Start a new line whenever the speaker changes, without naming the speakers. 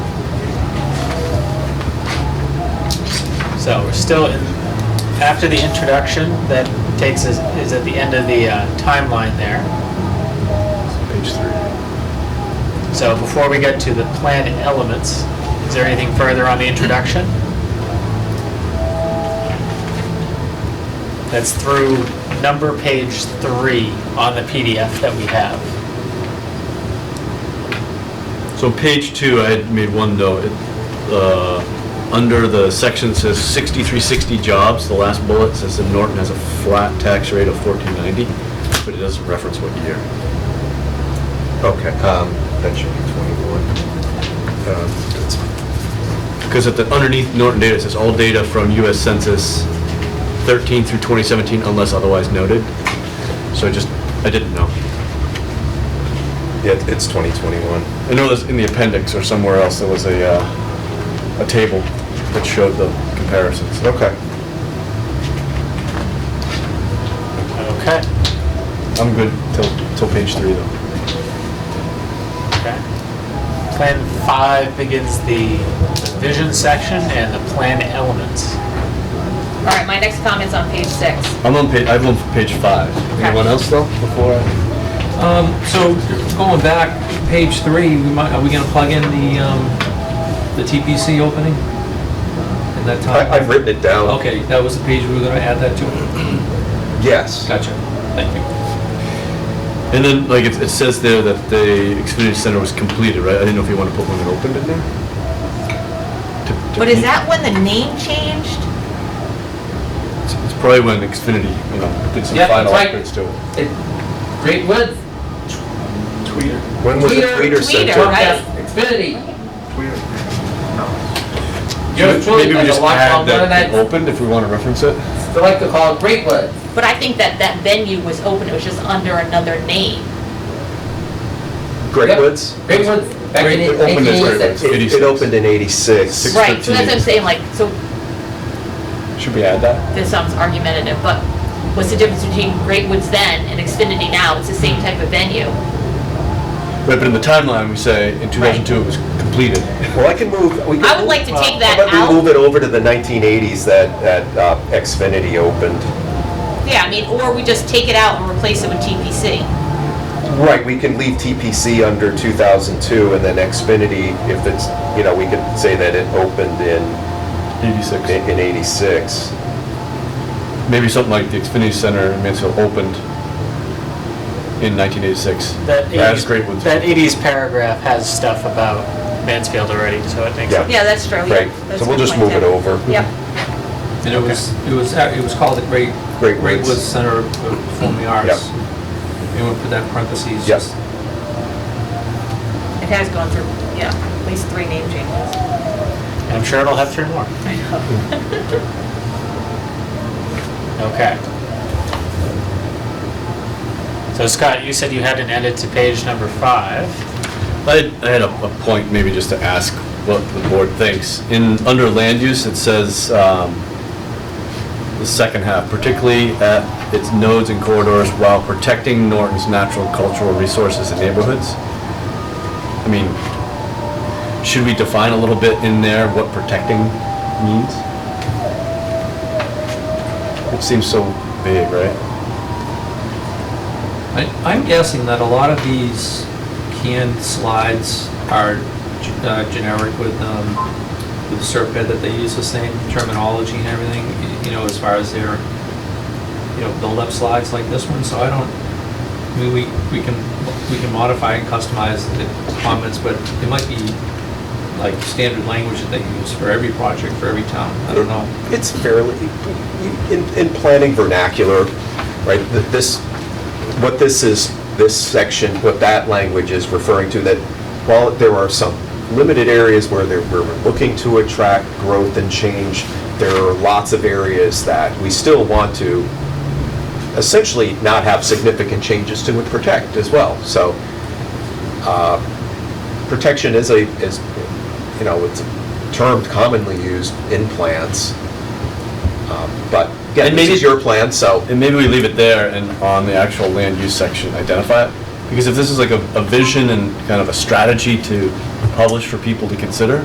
So we're still in, after the introduction, that takes us, is at the end of the uh, timeline there.
Page three.
So before we get to the plan elements, is there anything further on the introduction? That's through number page three on the PDF that we have.
So page two, I had made one note, It, uh, under the section says 6360 jobs, the last bullet says that Norton has a flat tax rate of 1490, but it doesn't reference what year.
Okay, um, that should be 21. Uh, that's fine.
Because at the, underneath Norton data, it says all data from US Census 13 through 2017 unless otherwise noted. So I just, I didn't know.
Yeah, it's 2021.
I know this in the appendix or somewhere else, there was a, uh, a table that showed the comparisons.
Okay.
Okay.
I'm good till, till page three though.
Okay. Plan five begins the vision section and the plan elements.
All right, my next comment's on page six.
I'm on page, I'm on page five. Anyone else though, before? I-
Um, So going back, page three, we might, are we gonna plug in the, um, the TPC opening? In that
I,
time?
I've written it down.
Okay, that was the page we were gonna add that to?
Yes.
Gotcha, thank you.
And then, like, it, it says there that the Xfinity Center was completed, right? I didn't know if you want to put when it opened in there? To- to-
But is that when the name changed?
It's it's probably when Xfinity, you know, did some
Yeah,
final
right.
upgrades to it.
Great Woods,
When was the Tweeter
Tweeter,
Center?
right?
Xfinity.
Maybe- Maybe we just add that it opened if we want to reference it.
they like to call it Great Woods.
But I think that that venue was open, it was just under another name.
Great Woods?
Great Woods, back
Great- it opened as Great Woods.
It,
86.
it opened in 86.
Six-
Right, so that's what I'm
13.
saying, like, so
Should we add that?
this sounds argumentative, but what's the difference between Great Woods then and Xfinity now? It's the same type of venue.
Right, but in the timeline, we say in 2002 it was completed.
Well, I can move, we can.
I would like to take that
How about we move
out.
it over to the 1980s that, that uh, Xfinity opened?
Yeah, I mean, or we just take it out and replace it with TPC.
Right, we can leave TPC under 2002 and then Xfinity, if it's, you know, we could say that it opened in,
86.
in 86.
Maybe something like the Xfinity Center in Mansfield opened in 1986.
That
That's
80s
Great Woods.
That 80s paragraph has stuff about Mansfield already, so it makes
Yeah.
sense.
Yeah, that's true.
Right, so we'll just move it over.
Yep.
And it was, it was, ac- it was called the Great,
Great
Great
Woods.
Woods Center for Performing Arts. You want to put that in parentheses?
Yep.
just-
It has gone through, yeah, at least three name changes.
And I'm sure it'll have three more. Okay. So Scott, you said you had an edit to page number five.
I had, I had a, a point maybe just to ask what the board thinks. In, under land use, it says, um, the second half, particularly at its nodes and corridors while protecting Norton's natural cultural resources and neighborhoods. I mean, should we define a little bit in there what protecting means? It seems so vague, right?
I- I'm guessing that a lot of these canned slides are g- uh, generic with, um, with Serped, that they use the same terminology and everything, y- you know, as far as their, you know, build-up slides like this one, so I don't, I mean, we, we can, we can modify and customize the comments, but it might be like standard language that they use for every project, for every town, I don't know.
It's fairly, in, in planning vernacular, right, th- this, what this is, this section, what that language is referring to, that while there are some limited areas where there, where we're looking to attract growth and change, there are lots of areas that we still want to essentially not have significant changes to and protect as well. So, uh, protection is a, is, you know, it's a term commonly used in plants. Um, But, again,
And
this
maybe-
is your plan, so,
And maybe we leave it there and on the actual land use section, identify it. Because if this is like a, a vision and kind of a strategy to publish for people to consider,